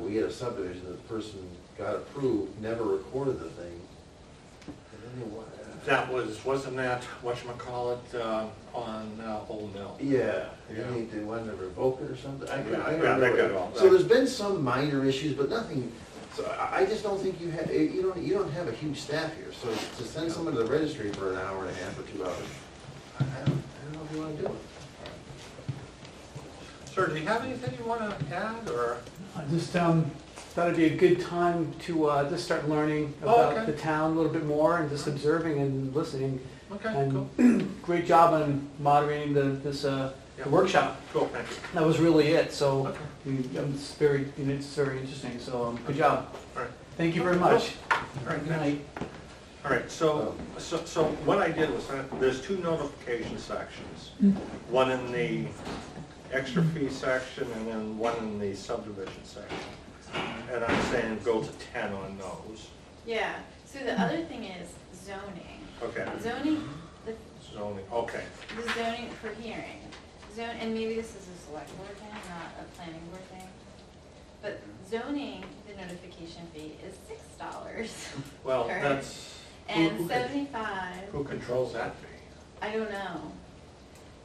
we had a subdivision, that the person got approved, never recorded the thing. I don't know why. That was, wasn't that, whatchamacallit, uh, on uh, Old Mill? Yeah, and Yeah. then they, they wanted to revoke it or something, I, I Yeah, don't yeah, know. that got all- So there's been some minor issues, but nothing, so I, I just don't think you had, eh, you don't, you don't have a huge staff here, so to send someone to the registry for an hour and a half or two hours, I I don't, I don't know if you wanna do it. Sir, do you have anything you wanna add, or? I Just um, thought it'd be a good time to uh, just start learning Oh, about okay. the town a little bit more and just observing and listening. Okay, cool, And great job on moderating the, this uh, the Yeah. workshop. cool, thank you. That was really it, so Okay. we- um, it's very, you know, it's very interesting, so um, good job. All right. Thank you very Cool. much. All right, Good thank night. All right, so, so, so what I did was, I- there's two notification sections. One in the extra fee section and then one in the subdivision section. And I'm saying go to ten on those. Yeah, so the other thing is zoning. Okay, Zoning, the zoning, okay, the zoning for hearing, zone, and maybe this is a select board thing, not a planning board thing. But zoning, the notification fee is six dollars well, Alright. that's, who, and who con- seventy-five, who controls that fee? I don't know.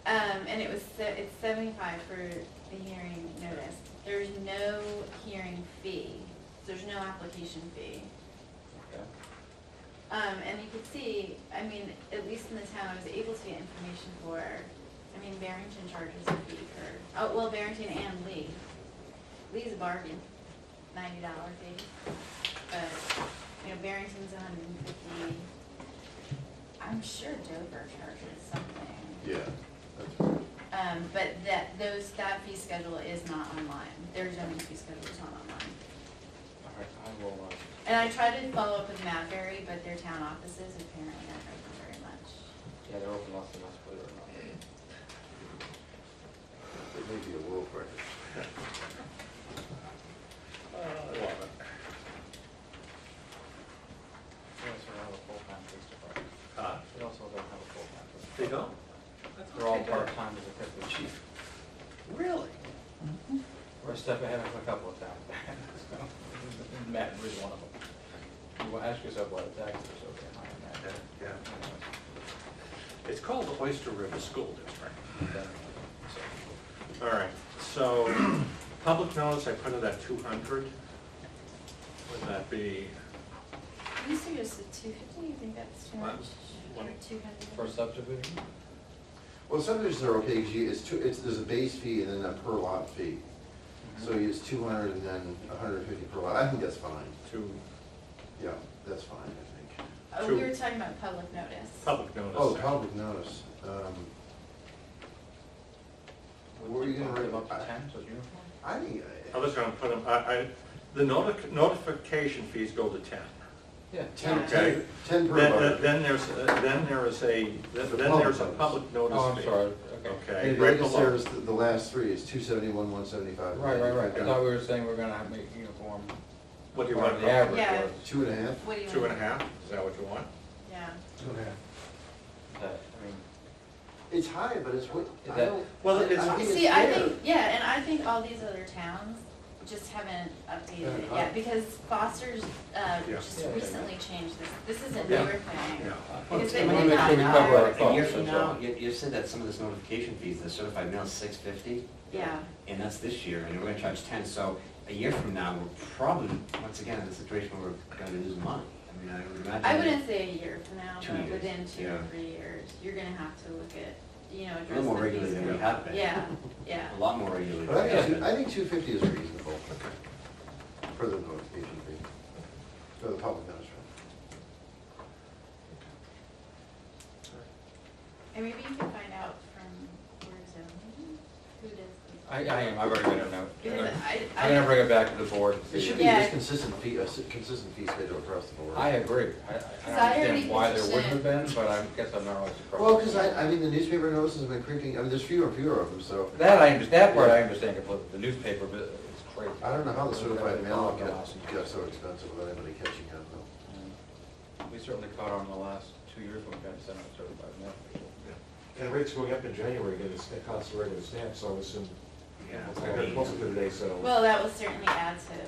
Um, and it was, se- it's seventy-five for the hearing notice. There's no hearing fee, there's no application fee. Um, and you could see, I mean, at least in the town, I was able to get information for, I mean, Barrington charges a fee for, oh, well, Barrington and Lee. Lee's a bargain, ninety dollar fee, but, you know, Barrington's a hundred and fifty. I'm sure Dover charges something, Yeah. that's- um, but that, those, that fee schedule is not online, their zoning fee schedule is not online. All right, I will, uh, And I tried to follow up with Matberry, but their town offices apparently aren't open very much. Yeah, they're open less than us, believe it or not. It may be a world record. I love it. They also don't have a full-time police department. Uh, They also don't have a full-time police They department. don't? They're all part-time as a deputy chief. Really? We're a step ahead of a couple of towns. Matt is one of them. You will ask yourself why the taxes are so damn high in that. Yeah. It's called the Oyster River School District. All right, so, public notice, I put it at two hundred. Would that be, You suggested two fifty, you think that's too What? much? What? Or two hundred? For subdivision, Well, subdivisions are okay, because you, it's two, it's, there's a base fee and then a per lot fee. So you use two hundred and then hundred and fifty per lot, I think that's fine, two, yeah, that's fine, I think. Oh, we Two. were talking about public notice. public notice? Oh, public notice, um, What were you gonna write up about? to ten, so it's uniform? I think, I uh, was gonna put them, I, I, the noti- notification fees go to ten. Yeah. ten, Okay. ten, ten per Then, lot. then there's, then there is a, then there's a public notice Oh, I'm fee. sorry, okay. Okay, And right if you below. service, the last three is two seventy-one, one seventy-five. Right, right, right. I thought we were saying we're gonna have- make uniform. What do you Or want, The average Yeah. was. Two and a half? What do you want? two and a half, is that what you want? Yeah. Two and a half. That, I mean, It's high, but it's what, Is I that- don't. Well, it's- I think See, I fair. think, yeah, and I think all these other towns just haven't updated it Haven't yet, updated. because Foster's, uh, Yeah. just Yeah. recently changed this, this is a Yeah. newer thing. Yeah. Because I they wanna did make not. sure we cover our hire- Oh, A year from so now, sorry. you, you said that some of this notification fees, the certified mail six fifty, Yeah, and that's this year, and we're gonna charge ten, so a year from now, we're probably, once again, in a situation where we're gonna lose money. I mean, I would imagine. I wouldn't say a year from now, Two but years, within two or yeah. three years, you're gonna have to look at, you know, address A little more the fees regularly than we for- have been. Yeah, yeah. A lot more regularly. But I think, than we two- have I think two fifty is reasonable for the notification fee, for the public notice. right? And maybe you can find out from where zoning, who does this. I, I am, I've already got a note. Because I, I'm gonna I, bring it back to the board and see. It should be Yeah. just consistent fee, a s- consistent fee schedule across the board. I agree. I- I I, I don't already understand why there wouldn't have considered- been, but I guess I'm not always surprised. Well, because I, I mean, the newspaper notices have been creeping, I mean, there's fewer and fewer of them, so That I, under- that part I understand completely, the newspaper, but it's crazy. I don't know how the certified mail Caught on the got, last- got so expensive without anybody catching on though. We certainly caught on the last two years when we got sent out certified mail. And rates going up in January, again, it's, it costs a regular stamp, so I assume, Yeah. I got closer to today, so. well, that will certainly add to the